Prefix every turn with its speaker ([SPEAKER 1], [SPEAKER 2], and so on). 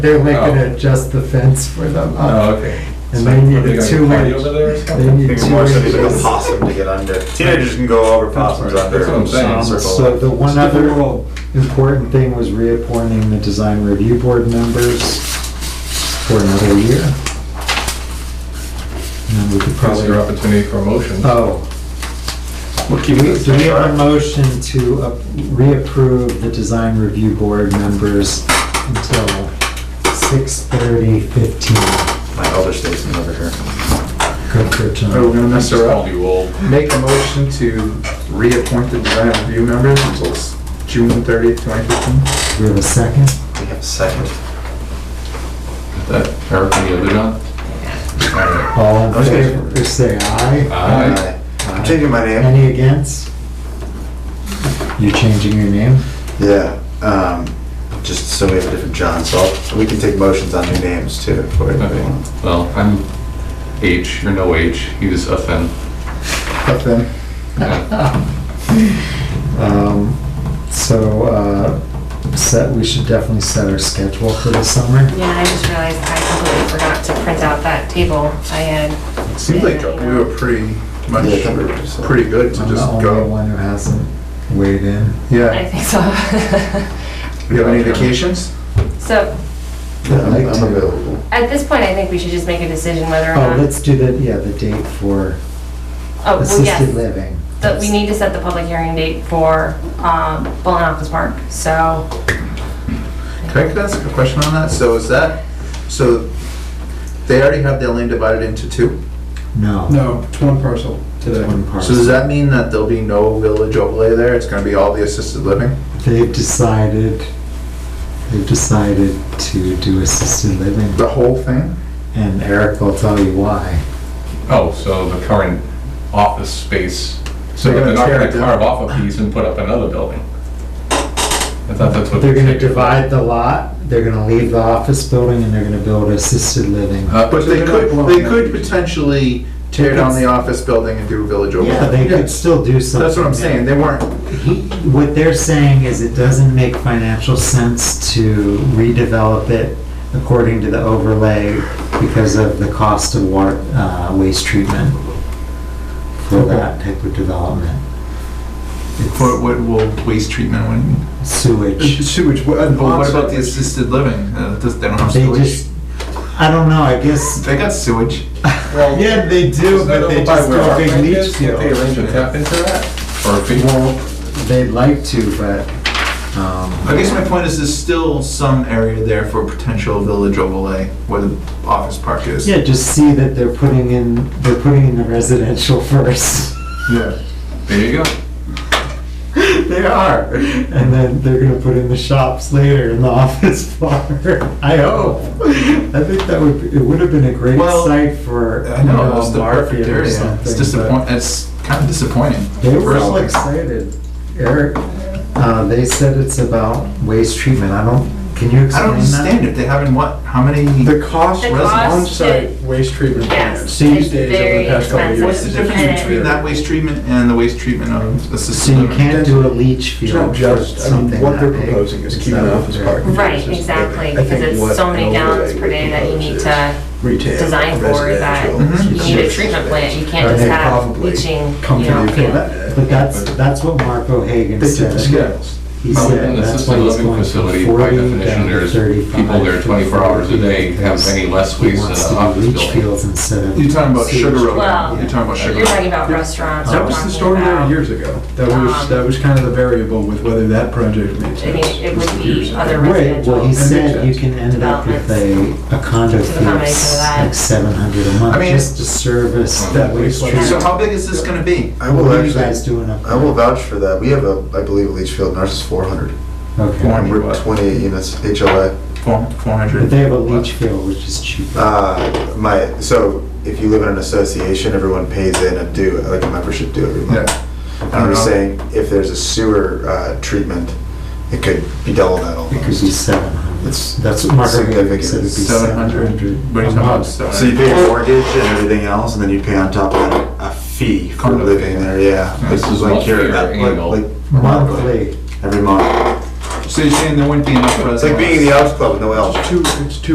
[SPEAKER 1] They're making
[SPEAKER 2] Oh.
[SPEAKER 1] it just the fence for them.
[SPEAKER 2] Oh, okay.
[SPEAKER 1] And
[SPEAKER 2] So,
[SPEAKER 1] they need
[SPEAKER 2] are
[SPEAKER 1] a
[SPEAKER 2] gonna
[SPEAKER 1] two
[SPEAKER 2] party over there or
[SPEAKER 1] inch. They
[SPEAKER 2] something?
[SPEAKER 1] need
[SPEAKER 3] Think
[SPEAKER 1] two
[SPEAKER 3] more so need like a
[SPEAKER 1] inches.
[SPEAKER 3] possum to get under. Teenagers can go over possums
[SPEAKER 2] That's
[SPEAKER 3] under.
[SPEAKER 2] what I'm saying.
[SPEAKER 3] some circle.
[SPEAKER 1] Um, So the one
[SPEAKER 2] Skip
[SPEAKER 1] other
[SPEAKER 2] the roll.
[SPEAKER 1] important thing was reappointing the design review board members for another year. And then we could probably,
[SPEAKER 2] Probably your opportunity for a motion.
[SPEAKER 1] oh, do we, do we have a motion to up- reapprove the design review board members until 6:30, 15?
[SPEAKER 3] My elder statesman over here.
[SPEAKER 1] Good for
[SPEAKER 4] Are we
[SPEAKER 3] Oh.
[SPEAKER 1] John.
[SPEAKER 4] gonna mess her
[SPEAKER 2] Called
[SPEAKER 4] up?
[SPEAKER 2] you old.
[SPEAKER 4] Make a motion to reappoint the design review members until s- June thirtieth, twenty fifteen.
[SPEAKER 1] Do we have a second?
[SPEAKER 3] We have a second.
[SPEAKER 2] That Eric and the other John?
[SPEAKER 1] All
[SPEAKER 3] I
[SPEAKER 1] in
[SPEAKER 3] was gonna-
[SPEAKER 1] favor, say aye.
[SPEAKER 2] Aye.
[SPEAKER 3] I'm changing my name.
[SPEAKER 1] Any against? You're changing your name?
[SPEAKER 3] Yeah, um, just so we have a different John, so I'll- we can take motions on new names too. if we
[SPEAKER 2] Okay.
[SPEAKER 3] want.
[SPEAKER 2] Well, I'm H, you're no H, he's FN.
[SPEAKER 4] But then,
[SPEAKER 2] Yeah.
[SPEAKER 1] Um, So, uh, set, we should definitely set our schedule for the summer.
[SPEAKER 5] Yeah, I just realized I completely forgot to print out that table I had.
[SPEAKER 4] it seems like we were pretty much,
[SPEAKER 3] Yeah, I think we were just-
[SPEAKER 4] pretty good to
[SPEAKER 1] I'm the
[SPEAKER 4] just
[SPEAKER 1] only
[SPEAKER 4] go.
[SPEAKER 1] one who hasn't weighed in.
[SPEAKER 5] I
[SPEAKER 4] Yeah.
[SPEAKER 5] think so.
[SPEAKER 4] You have any vacations?
[SPEAKER 5] So,
[SPEAKER 3] Yeah, I'm
[SPEAKER 1] I'd like to.
[SPEAKER 3] I'm available.
[SPEAKER 5] at this point, I think we should just make a decision whether or
[SPEAKER 1] Oh,
[SPEAKER 5] not.
[SPEAKER 1] let's do the, yeah, the date for
[SPEAKER 5] Oh, well,
[SPEAKER 1] assisted
[SPEAKER 5] yes,
[SPEAKER 1] living.
[SPEAKER 5] that we need to set the public hearing date for, um, Bolin Office Park, so.
[SPEAKER 4] Can I could ask a question on that? So is that, so they already have their land divided into two?
[SPEAKER 1] No.
[SPEAKER 6] No, it's one parcel today.
[SPEAKER 1] One
[SPEAKER 4] So does
[SPEAKER 1] parcel.
[SPEAKER 4] that mean that there'll be no village overlay there? It's gonna be all the assisted living?
[SPEAKER 1] They've decided, they've decided to do assisted living.
[SPEAKER 4] The whole thing?
[SPEAKER 1] And Eric will tell you why.
[SPEAKER 2] Oh, so the current office space, so
[SPEAKER 4] They're gonna
[SPEAKER 2] they're not
[SPEAKER 4] tear
[SPEAKER 2] gonna
[SPEAKER 4] it down.
[SPEAKER 2] carve off a piece and put up another building? I thought that's what.
[SPEAKER 1] They're
[SPEAKER 2] they
[SPEAKER 1] gonna
[SPEAKER 2] did.
[SPEAKER 1] divide the lot, they're gonna leave the office building, and they're gonna build assisted living.
[SPEAKER 2] Uh,
[SPEAKER 4] But
[SPEAKER 6] So
[SPEAKER 4] they
[SPEAKER 6] they're
[SPEAKER 4] could,
[SPEAKER 6] not
[SPEAKER 4] they
[SPEAKER 6] blowing
[SPEAKER 4] could
[SPEAKER 6] up.
[SPEAKER 4] potentially tear down the office building and do a village overlay.
[SPEAKER 1] Yeah, they
[SPEAKER 4] Yeah.
[SPEAKER 1] could still do something.
[SPEAKER 4] That's what I'm saying, they weren't,
[SPEAKER 1] He- What they're saying is it doesn't make financial sense to redevelop it according to the overlay because of the cost of water, uh, waste treatment for that type of development.
[SPEAKER 4] what, what will waste treatment, what do you mean?
[SPEAKER 1] It's Sewage.
[SPEAKER 6] Sewage, what, and
[SPEAKER 4] But what about the
[SPEAKER 6] sewage.
[SPEAKER 4] assisted living, Uh, does- they don't have
[SPEAKER 1] They
[SPEAKER 4] sewage?
[SPEAKER 1] just, I don't know, I guess,
[SPEAKER 4] They got sewage.
[SPEAKER 1] yeah, they do,
[SPEAKER 2] Is that
[SPEAKER 1] but they
[SPEAKER 2] over by
[SPEAKER 1] just
[SPEAKER 2] where
[SPEAKER 1] go
[SPEAKER 2] our
[SPEAKER 1] big
[SPEAKER 2] bank
[SPEAKER 1] leach
[SPEAKER 2] is? Can't They
[SPEAKER 1] field.
[SPEAKER 2] arrange a tap into that? Or a big
[SPEAKER 1] Well, they'd like to, but, um.
[SPEAKER 4] I guess my point is there's still some area there for potential village overlay where the office park is.
[SPEAKER 1] Yeah, just see that they're putting in, they're putting in the residential first.
[SPEAKER 4] Yeah.
[SPEAKER 2] There you go.
[SPEAKER 1] They are. And then they're gonna put in the shops later in the office bar. I hope. I think that would, be- it would have been a great
[SPEAKER 4] Well,
[SPEAKER 1] site for,
[SPEAKER 4] I
[SPEAKER 1] you
[SPEAKER 4] know,
[SPEAKER 1] know,
[SPEAKER 4] it's
[SPEAKER 1] a
[SPEAKER 4] the perfect
[SPEAKER 1] market or
[SPEAKER 4] area, it's
[SPEAKER 1] something.
[SPEAKER 4] disappoint, it's kind of disappointing.
[SPEAKER 1] but They were all
[SPEAKER 4] Personally.
[SPEAKER 1] excited. Eric, uh, they said it's about waste treatment. I don't, can you
[SPEAKER 4] I
[SPEAKER 1] explain
[SPEAKER 4] don't understand
[SPEAKER 1] that?
[SPEAKER 4] it, they haven't what, how many?
[SPEAKER 6] The cost
[SPEAKER 5] The
[SPEAKER 6] of
[SPEAKER 5] cost
[SPEAKER 6] on-site
[SPEAKER 5] is-
[SPEAKER 6] waste treatment plant,
[SPEAKER 5] Yes, it's
[SPEAKER 6] these days over
[SPEAKER 5] very
[SPEAKER 6] the past couple of
[SPEAKER 5] expensive.
[SPEAKER 6] years.
[SPEAKER 4] What's the
[SPEAKER 5] And-
[SPEAKER 4] difference between that waste treatment and the waste treatment of
[SPEAKER 1] So
[SPEAKER 4] assisted
[SPEAKER 1] you
[SPEAKER 4] living?
[SPEAKER 1] can't do a leach
[SPEAKER 6] It's
[SPEAKER 1] field for
[SPEAKER 6] not just, I mean,
[SPEAKER 1] something
[SPEAKER 6] what they're
[SPEAKER 1] that big.
[SPEAKER 6] proposing is keeping
[SPEAKER 1] that what
[SPEAKER 6] office
[SPEAKER 1] they're-
[SPEAKER 6] park.
[SPEAKER 5] Right,
[SPEAKER 6] Because it's-
[SPEAKER 5] exactly,
[SPEAKER 6] I
[SPEAKER 5] because
[SPEAKER 6] think
[SPEAKER 5] it's
[SPEAKER 6] what
[SPEAKER 5] so many
[SPEAKER 6] an
[SPEAKER 5] gallons
[SPEAKER 6] overlay
[SPEAKER 5] per day
[SPEAKER 6] would
[SPEAKER 5] that you
[SPEAKER 6] propose
[SPEAKER 5] need
[SPEAKER 6] is
[SPEAKER 5] to,
[SPEAKER 6] retail,
[SPEAKER 5] design for that
[SPEAKER 4] Mhm.
[SPEAKER 6] residential,
[SPEAKER 5] you need a
[SPEAKER 6] assisted
[SPEAKER 5] treatment plant, you
[SPEAKER 6] living.
[SPEAKER 5] can't just
[SPEAKER 6] They
[SPEAKER 5] have
[SPEAKER 6] probably
[SPEAKER 5] leaching,
[SPEAKER 6] Come
[SPEAKER 5] you
[SPEAKER 6] to
[SPEAKER 5] know,
[SPEAKER 6] you for
[SPEAKER 5] field.
[SPEAKER 6] that.
[SPEAKER 1] But that's, that's what Mark O'Hagan
[SPEAKER 6] They did
[SPEAKER 1] said.
[SPEAKER 6] the scales.
[SPEAKER 1] He
[SPEAKER 2] Well,
[SPEAKER 1] said
[SPEAKER 2] In the
[SPEAKER 1] that's why
[SPEAKER 2] assisted
[SPEAKER 1] he's
[SPEAKER 2] living
[SPEAKER 1] going from
[SPEAKER 2] facility, by
[SPEAKER 1] 40 down
[SPEAKER 2] definition,
[SPEAKER 1] to
[SPEAKER 2] there's
[SPEAKER 1] 35.
[SPEAKER 2] people there 24 hours a day, have any less
[SPEAKER 1] He
[SPEAKER 2] waste than
[SPEAKER 1] wants
[SPEAKER 2] an
[SPEAKER 1] to do
[SPEAKER 2] office
[SPEAKER 1] leach
[SPEAKER 2] building.
[SPEAKER 1] fields instead of.
[SPEAKER 4] You're talking about
[SPEAKER 1] sewage.
[SPEAKER 4] Sugar Road,
[SPEAKER 5] Well,
[SPEAKER 4] you're talking about Sugar
[SPEAKER 5] You're talking
[SPEAKER 4] Road.
[SPEAKER 5] about restaurants,
[SPEAKER 6] That
[SPEAKER 5] you're
[SPEAKER 6] was the
[SPEAKER 5] talking
[SPEAKER 6] story there
[SPEAKER 5] about,
[SPEAKER 6] years ago. That was,
[SPEAKER 5] um,
[SPEAKER 6] that was kind of the variable with whether that project made
[SPEAKER 5] I mean,
[SPEAKER 6] sense.
[SPEAKER 5] it would be other
[SPEAKER 1] Right, well, he
[SPEAKER 5] residential.
[SPEAKER 1] said you can end up with a, a condo fee of
[SPEAKER 5] Accommodation for that.
[SPEAKER 1] like 700 a
[SPEAKER 4] I
[SPEAKER 1] month
[SPEAKER 4] mean,
[SPEAKER 1] just to service that
[SPEAKER 6] that
[SPEAKER 1] waste
[SPEAKER 6] wastewater-
[SPEAKER 1] treatment.
[SPEAKER 4] So how big is this gonna be?
[SPEAKER 3] I
[SPEAKER 1] What
[SPEAKER 3] will
[SPEAKER 1] are you guys
[SPEAKER 3] actually,
[SPEAKER 1] doing up there?
[SPEAKER 3] I will vouch for that. We have a, I believe, a leach field, and ours is four hundred.
[SPEAKER 1] Okay.
[SPEAKER 4] Form.
[SPEAKER 3] And we're
[SPEAKER 4] What?
[SPEAKER 3] twenty-eight units, HOA.
[SPEAKER 4] Four, four
[SPEAKER 1] But
[SPEAKER 4] hundred?
[SPEAKER 1] they have a leach field, which is cheaper.
[SPEAKER 3] Uh, my, so if you live in an association, everyone pays in a due, like a membership due every month.
[SPEAKER 4] Yeah.
[SPEAKER 3] And I'm
[SPEAKER 1] Uh-huh.
[SPEAKER 3] just saying, if there's a sewer uh, treatment, it could be double that
[SPEAKER 1] It
[SPEAKER 3] almost.
[SPEAKER 1] could be 700.
[SPEAKER 3] It's-
[SPEAKER 1] That's what Mark O'Hagan
[SPEAKER 3] significant.
[SPEAKER 1] said, it'd be
[SPEAKER 4] Seven hundred,
[SPEAKER 1] 700.
[SPEAKER 4] what are you
[SPEAKER 1] a
[SPEAKER 4] talking about?
[SPEAKER 1] month.
[SPEAKER 3] So you
[SPEAKER 4] Seven
[SPEAKER 3] pay a mortgage and everything else, and then you pay on top of that a fee for
[SPEAKER 4] Condo
[SPEAKER 3] living there, yeah.
[SPEAKER 2] This is
[SPEAKER 3] like
[SPEAKER 2] monthly
[SPEAKER 3] you're-
[SPEAKER 2] or
[SPEAKER 3] like-
[SPEAKER 2] annual?
[SPEAKER 3] like
[SPEAKER 1] Monthly.
[SPEAKER 3] Every month. So you're saying there wouldn't be enough
[SPEAKER 4] It's like being in the Elks Club with no Elks.
[SPEAKER 3] It's too, it's too